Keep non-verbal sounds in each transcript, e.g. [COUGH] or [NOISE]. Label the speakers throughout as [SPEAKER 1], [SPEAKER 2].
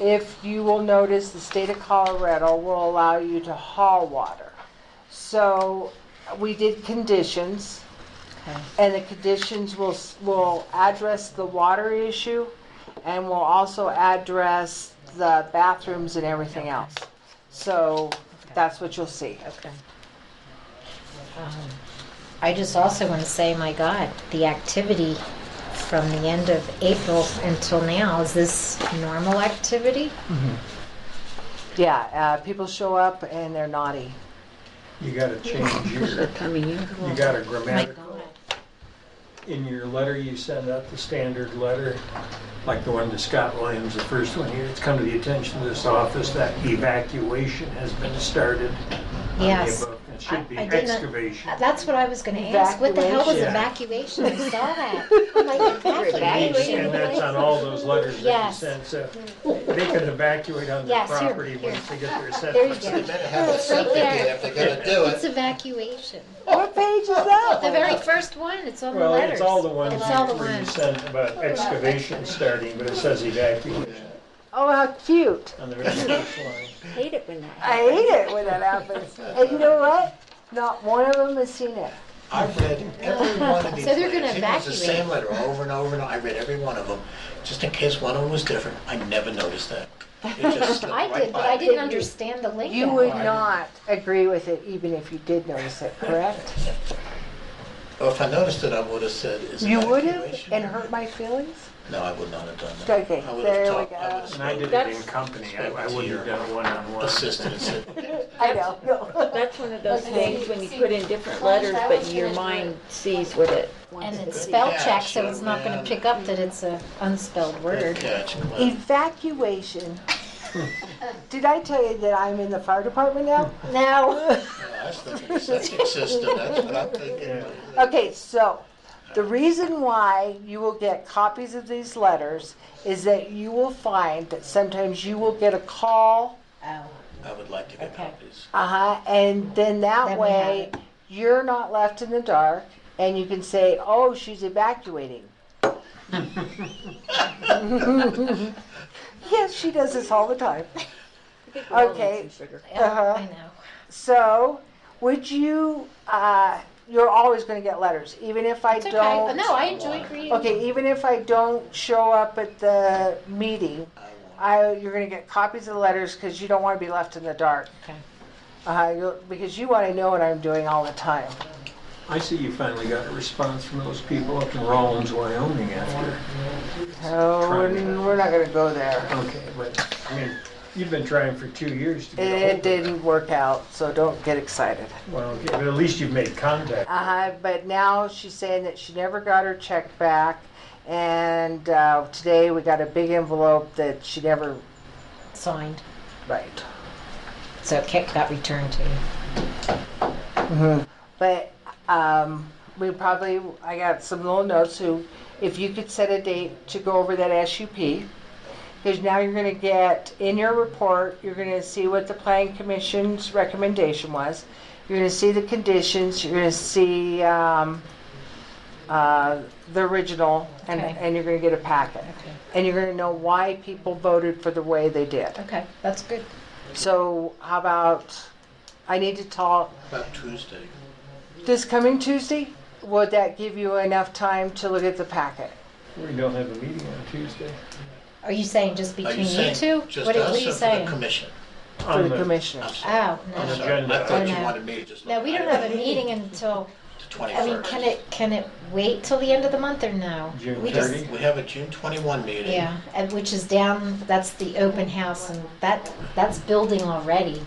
[SPEAKER 1] If you will notice, the state of Colorado will allow you to haul water. So we did conditions,
[SPEAKER 2] Okay.
[SPEAKER 1] and the conditions will, s- will address the water issue, and will also address the bathrooms and everything else. So that's what you'll see.
[SPEAKER 2] Okay. Um, I just also want to say, my God, the activity from the end of April until now, is this normal activity?
[SPEAKER 1] Yeah, uh, people show up and they're naughty.
[SPEAKER 3] You gotta change your,
[SPEAKER 4] That time of year.
[SPEAKER 3] you got a
[SPEAKER 2] My
[SPEAKER 3] grammatical,
[SPEAKER 2] God.
[SPEAKER 3] in your letter, you send out the standard letter, like the one to Scott Williams, the first one here, it's come to the attention of this office that evacuation has been started. on the
[SPEAKER 2] Yes.
[SPEAKER 3] above. It should be
[SPEAKER 2] I- I didn't-
[SPEAKER 3] excavation.
[SPEAKER 2] That's what I was going to ask. What the hell was evacuation?
[SPEAKER 3] Evacuation.
[SPEAKER 2] I saw that. I'm like, evacuation?
[SPEAKER 3] And that's on all those letters that you
[SPEAKER 2] Yes.
[SPEAKER 3] send, so they can evacuate on their
[SPEAKER 2] Yes, here,
[SPEAKER 3] property
[SPEAKER 2] here.
[SPEAKER 3] once they get their
[SPEAKER 2] There you
[SPEAKER 3] setbacks.
[SPEAKER 2] go.
[SPEAKER 5] Better have a
[SPEAKER 2] It's right
[SPEAKER 5] septic in
[SPEAKER 2] there.
[SPEAKER 5] if they're gonna do
[SPEAKER 2] It's
[SPEAKER 5] it.
[SPEAKER 2] evacuation.
[SPEAKER 1] What page is that?
[SPEAKER 2] The very first one, it's on the
[SPEAKER 3] Well,
[SPEAKER 2] letters.
[SPEAKER 3] it's all the ones
[SPEAKER 2] It's all the
[SPEAKER 3] where you
[SPEAKER 2] ones.
[SPEAKER 3] send about excavation starting, but it says evacuation
[SPEAKER 1] Oh, how cute.
[SPEAKER 3] on the very first line.
[SPEAKER 4] Hate it when that.
[SPEAKER 1] I hate it when that happens. And you know what? Not one of them has seen it.
[SPEAKER 5] I've read
[SPEAKER 2] [LAUGHS]
[SPEAKER 5] every one of these.
[SPEAKER 2] So they're gonna
[SPEAKER 5] letters. Even It's the
[SPEAKER 2] evacuate.
[SPEAKER 5] same letter over and over and over. I read every one of them, just in case one of them was different. I never noticed that. It
[SPEAKER 2] [LAUGHS]
[SPEAKER 5] just slipped
[SPEAKER 2] I
[SPEAKER 5] right
[SPEAKER 2] did, but
[SPEAKER 5] by
[SPEAKER 2] I
[SPEAKER 5] me.
[SPEAKER 2] didn't understand the link.
[SPEAKER 1] You would not agree with it even if you did notice it, correct?
[SPEAKER 5] Or if I noticed it, I would have said, is it
[SPEAKER 1] You would have
[SPEAKER 5] evacuation?
[SPEAKER 1] and hurt my feelings?
[SPEAKER 5] No, I would not have done that.
[SPEAKER 1] Okay,
[SPEAKER 5] I would have
[SPEAKER 1] there
[SPEAKER 5] talked-
[SPEAKER 1] we
[SPEAKER 5] I
[SPEAKER 1] go.
[SPEAKER 5] would have
[SPEAKER 3] And I did it in
[SPEAKER 4] That's-
[SPEAKER 3] company, I I wouldn't have done it one-on-one.
[SPEAKER 5] assisted and said,
[SPEAKER 1] [LAUGHS] I know.
[SPEAKER 4] That's one of those things when you put in different letters, but your mind sees what it
[SPEAKER 2] And
[SPEAKER 4] wants.
[SPEAKER 2] it's spell check, so it's not going
[SPEAKER 5] Yeah.
[SPEAKER 2] to pick up that it's a unspelled
[SPEAKER 5] good
[SPEAKER 2] word.
[SPEAKER 5] catch. Glenn."
[SPEAKER 1] Evacuation. Did I tell you that I'm in the fire department now?
[SPEAKER 2] No.
[SPEAKER 5] I was thinking septic system, that's what I'm
[SPEAKER 1] [LAUGHS]
[SPEAKER 5] thinking.
[SPEAKER 1] [LAUGHS] Okay, so the reason why you will get copies of these letters is that you will find that sometimes you will get a call
[SPEAKER 2] Oh,
[SPEAKER 5] I would like to get
[SPEAKER 2] Okay.
[SPEAKER 5] copies.
[SPEAKER 1] Uh-huh, and then that
[SPEAKER 2] Then we have
[SPEAKER 1] way
[SPEAKER 2] it.
[SPEAKER 1] you're not left in the dark and you can say, "Oh, she's evacuating." yes, she does this all the time. Okay.
[SPEAKER 2] yeah, I know.
[SPEAKER 1] So, would you uh, you're always going to get letters even if I
[SPEAKER 2] It's okay.
[SPEAKER 1] don't
[SPEAKER 2] No, I enjoyed reading.
[SPEAKER 1] Okay, even if I don't show up at the meeting,
[SPEAKER 5] I
[SPEAKER 1] I
[SPEAKER 5] want-
[SPEAKER 1] you're going to get copies of the letters cuz you don't want to be left in the dark.
[SPEAKER 2] Okay.
[SPEAKER 1] Uh, you'll, because you want to know what I'm doing all the time.
[SPEAKER 3] I see you finally got a response from those people up in Rollins, Wyoming after.
[SPEAKER 1] Oh, we're, we're not gonna go there.
[SPEAKER 3] Okay, but, I mean, you've been trying for two years to get a hold
[SPEAKER 1] It
[SPEAKER 3] of it.
[SPEAKER 1] didn't work out, so don't get excited.
[SPEAKER 3] Well, okay, but at least you've made contact.
[SPEAKER 1] Uh, but now she's saying that she never got her check back, and uh, today we got a big envelope that she never.
[SPEAKER 2] Signed.
[SPEAKER 1] Right.
[SPEAKER 2] So it kick- got returned to you.
[SPEAKER 1] But um, we probably I got some little notes who, if you could set a date to go over that SUP. Because now you're going to get in your report, you're going to see what the planning commission's recommendation was. You're going to see the conditions. You're going to see um, uh, the original, and,
[SPEAKER 2] Okay.
[SPEAKER 1] and you're going to get a packet.
[SPEAKER 2] Okay.
[SPEAKER 1] And you're going to know why people voted for the way they did.
[SPEAKER 2] Okay, that's good.
[SPEAKER 1] So how about I need to talk
[SPEAKER 5] About Tuesday.
[SPEAKER 1] this coming Tuesday, would that give you enough time to look at the packet?
[SPEAKER 3] We don't have a meeting on Tuesday.
[SPEAKER 2] Are you saying just
[SPEAKER 5] Are
[SPEAKER 2] between you,
[SPEAKER 5] saying
[SPEAKER 2] two?
[SPEAKER 5] Just
[SPEAKER 2] what, are-
[SPEAKER 5] us
[SPEAKER 2] what are you
[SPEAKER 5] or for the
[SPEAKER 2] saying?
[SPEAKER 5] commission?
[SPEAKER 1] For
[SPEAKER 3] On
[SPEAKER 1] the
[SPEAKER 5] I'm
[SPEAKER 1] commissioners.
[SPEAKER 5] sorry.
[SPEAKER 2] Oh,
[SPEAKER 5] I'm
[SPEAKER 2] no.
[SPEAKER 5] sorry. I thought you
[SPEAKER 2] No.
[SPEAKER 5] wanted me to just.
[SPEAKER 2] No, we don't have a meeting until, I mean, can it, can it wait till the end of the month or no?
[SPEAKER 3] June
[SPEAKER 2] We just-
[SPEAKER 3] 30?
[SPEAKER 5] We have a June twenty-one meeting.
[SPEAKER 2] Yeah, and which is down, that's the open house and that, that's building already.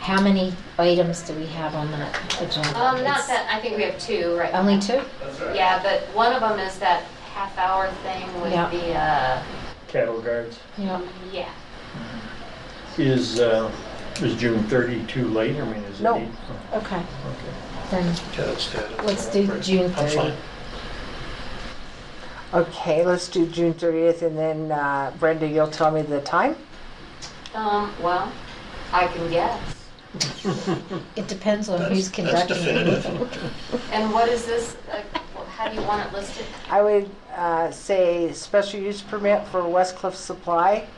[SPEAKER 2] How many items do we have on that agenda?
[SPEAKER 6] Um, not
[SPEAKER 2] It's
[SPEAKER 6] that, I think we have two, right?
[SPEAKER 2] Only two?
[SPEAKER 6] Yeah, but one of them is that half hour thing with
[SPEAKER 2] Yeah.
[SPEAKER 6] the, uh,
[SPEAKER 3] Cattle guards.
[SPEAKER 2] Yeah.
[SPEAKER 6] yeah.
[SPEAKER 3] Is, uh, is June 30 too late? I mean, is it?
[SPEAKER 1] No.
[SPEAKER 3] eight-
[SPEAKER 2] Okay,
[SPEAKER 3] oh, Okay.
[SPEAKER 2] then
[SPEAKER 5] Yeah, that's good. That's
[SPEAKER 2] Let's
[SPEAKER 5] all
[SPEAKER 2] do
[SPEAKER 5] right.
[SPEAKER 2] June
[SPEAKER 5] I'm
[SPEAKER 2] 30.
[SPEAKER 5] fine.
[SPEAKER 1] Okay, let's do June thirtieth, and then uh, Brenda, you'll tell me the time?
[SPEAKER 6] Um, well, I can guess.
[SPEAKER 2] it depends on
[SPEAKER 5] That's-
[SPEAKER 2] who's conducting
[SPEAKER 5] That's
[SPEAKER 2] the meeting.
[SPEAKER 5] definitive.
[SPEAKER 6] And what is this, like, wh- how do you want it listed?
[SPEAKER 1] I would uh, say special use permit for Westcliff Supply